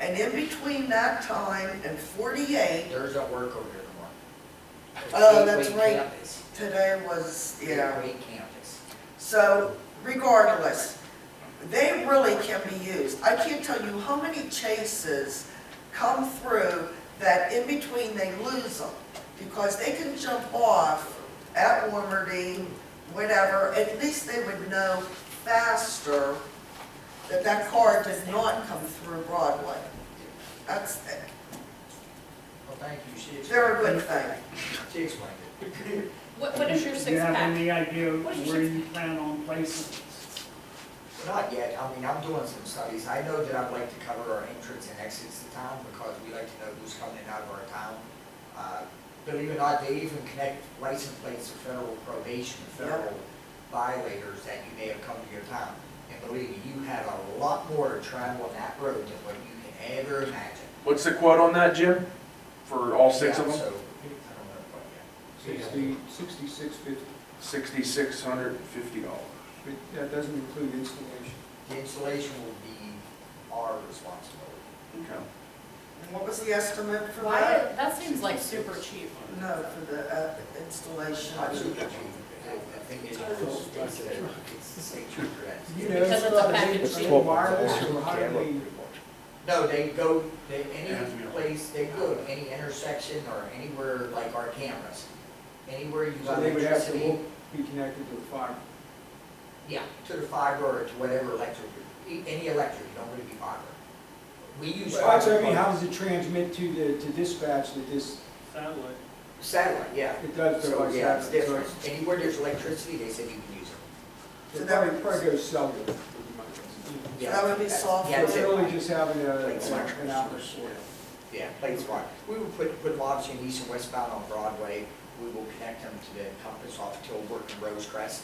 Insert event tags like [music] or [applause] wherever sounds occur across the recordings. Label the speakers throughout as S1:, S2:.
S1: And in between that time and forty-eight,
S2: There's no work over here tomorrow.
S1: Oh, that's
S2: Gateway
S1: right.
S2: campus.
S1: today was, yeah.
S2: Gateway campus.
S1: So regardless, they really can be used. I can't tell you how many chases come through that in between they lose them because they can jump off at Warmerdine, whatever, at least they would know faster that that car did not come through Broadway. That's,
S2: Well, thank you, she explained.
S1: they're a good thing.
S2: She explained it.
S3: What, what is your
S4: Do you
S3: six
S4: have
S3: pack?
S4: any idea
S3: What is your
S4: where you plan on placing?
S2: [laughs] Not yet, I mean, I'm doing some studies, I know that I'd like to cover our entrance and exits to town, because we like to know who's coming in and out of our town. Uh, Believe it or not, they even connect license plates to federal probation, federal violators that you may have come to your town. And believe me, you have a lot more to travel on that road than what you can ever imagine.
S5: What's the quote on that, Jim? For all six of
S2: Yeah,
S5: them?
S2: so, I don't know what yet.
S6: Sixty, sixty-six fifty,
S5: Sixty-six hundred and fifty dollars.
S6: but that doesn't include installation.
S2: The installation will be our responsibility.
S1: And what was the estimate for
S3: Why,
S1: that?
S3: that seems like super cheap.
S1: No, for the uh, installation.
S2: I think it's it's the state trooper that's-
S6: You know, uh,
S3: Because it's a package
S6: it's
S3: deal.
S6: wireless or highly,
S2: No, they go, they, any place, they go to any intersection or anywhere like our cameras. Anywhere you
S6: so
S2: got
S6: they would have to
S2: electricity,
S6: look- be connected to the fire.
S2: yeah, to the fiber or to whatever electric, e- any electric, you don't really be fiber. We use
S6: Well, so I mean, how
S2: fiber,
S6: does it transmit to the, to dispatch that this,
S4: Satellite.
S2: satellite, yeah.
S6: it does go
S2: So,
S6: like
S2: yeah, it's
S6: that?
S2: different. Anywhere there's electricity, they said you can use it.
S6: So that would probably go cellular. would be my guess.
S1: So
S2: Yeah,
S1: that would be
S2: that's-
S1: software.
S2: Yeah,
S6: It's
S2: that's it.
S6: really just having a,
S2: Like smart.
S6: an outlet for it.
S2: Yeah, Plains Park. We will put, put lobs in east and westbound on Broadway. We will connect them to the compass off Tilbrook and Rose Crest.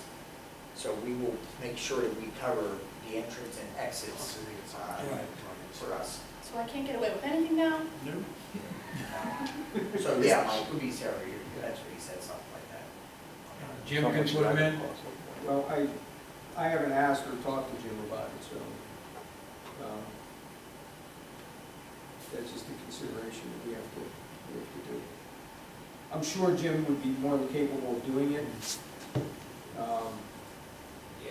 S2: So we will make sure that we cover the entrance and exits
S6: Oh,
S2: uh, for us.
S3: So I can't get away with anything now?
S2: So, yeah,
S6: [laughs]
S2: Mike, would be Sarah, you- that's what he said, something like that.
S7: Jim can put them in?
S6: Well, I, I haven't asked or talked to Jim about it, so, um, that's just a consideration that we have to, we have to do. I'm sure Jim would be more than capable of doing it. Um,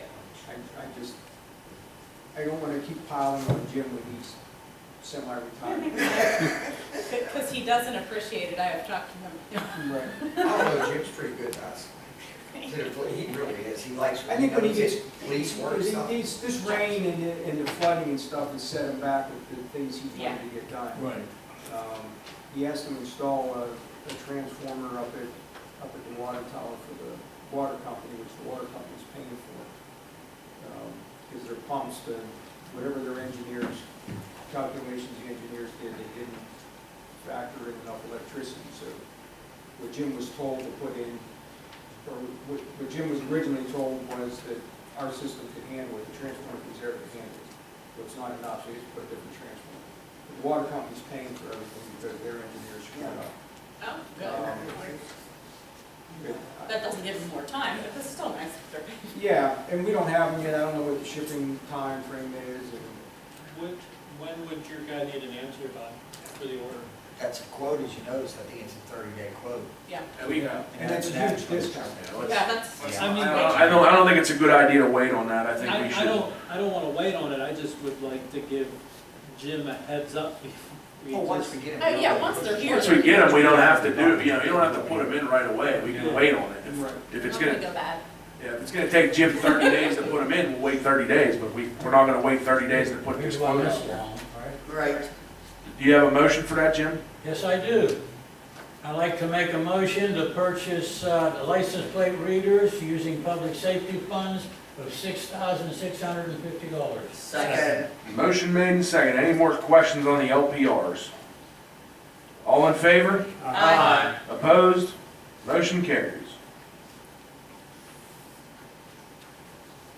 S6: I, I just, I don't wanna keep piling on Jim when he's semi-retired.
S3: Because he doesn't appreciate it, I have talked to him. [laughs]
S6: Right.
S2: I don't know, Jim's pretty good to us. He really is, he likes.
S6: I think when he gets-
S2: Police work
S6: These-
S2: stuff.
S6: These, this rain and the, and the flooding and stuff has set him back with the things he's wanted to get done.
S7: Right.
S6: Um, He has to install a, a transformer up at, up at the water tower for the water company, which the water company's paying for. Because their pumps, the, whatever their engineers, calculations the engineers did, they didn't factor in enough electricity. So what Jim was told to put in, or what, what Jim was originally told was that our system could handle it, the transformer was there to handle it. So it's not enough, so you have to put a different transformer. The water company's paying for everything because their engineers screwed up.
S3: Oh,
S6: Um, but, uh,
S3: That doesn't give him more time, but this is still nice if they're paying.
S6: Yeah, and we don't have them yet, I don't know what the shipping time frame is, and
S8: What, when would your guy need an answer by for the order?
S2: That's a quote, as you noticed, I think it's a thirty-day quote.
S3: Yeah,
S6: And that's a huge discount.
S3: yeah, that's,
S2: Yeah.
S8: I mean,
S5: I don't, I don't think it's a good idea to wait on that, I think
S8: I,
S5: we
S8: I
S5: should.
S8: don't, I don't wanna wait on it, I just would like to give Jim a heads up [laughs] before we
S2: Well, once
S8: just.
S2: we get them.
S3: oh, yeah, once they're here.
S5: Once we get them, we don't have to do, you know, you don't have to put them in right away, we can wait on it.
S6: Right.
S5: If-
S3: It's
S5: If it's
S3: gonna
S5: gonna,
S3: go bad.
S5: yeah, if it's gonna take Jim thirty days to put them in, we'll wait thirty days, but we, we're not gonna wait thirty days to put this quote in.
S1: Right.
S5: Do you have a motion for that, Jim?
S7: Yes, I do. I'd like to make a motion to purchase uh, the license plate readers using public safety funds of $6,650.
S1: Second.
S5: Motion made and second, any more questions on the LPRs? All in favor?
S3: Aye.
S5: Opposed? Motion carries.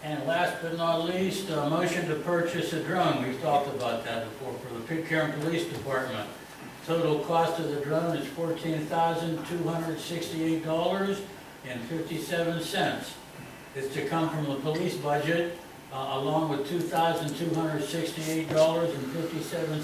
S7: And last but not least, a motion to purchase a drone, we've talked about that before, for the Pitcairn Police Department. Total cost of the drone is fourteen thousand, two hundred sixty-eight dollars and fifty-seven cents. It's to come from the police budget, uh, along with two thousand, two hundred sixty-eight dollars and fifty-seven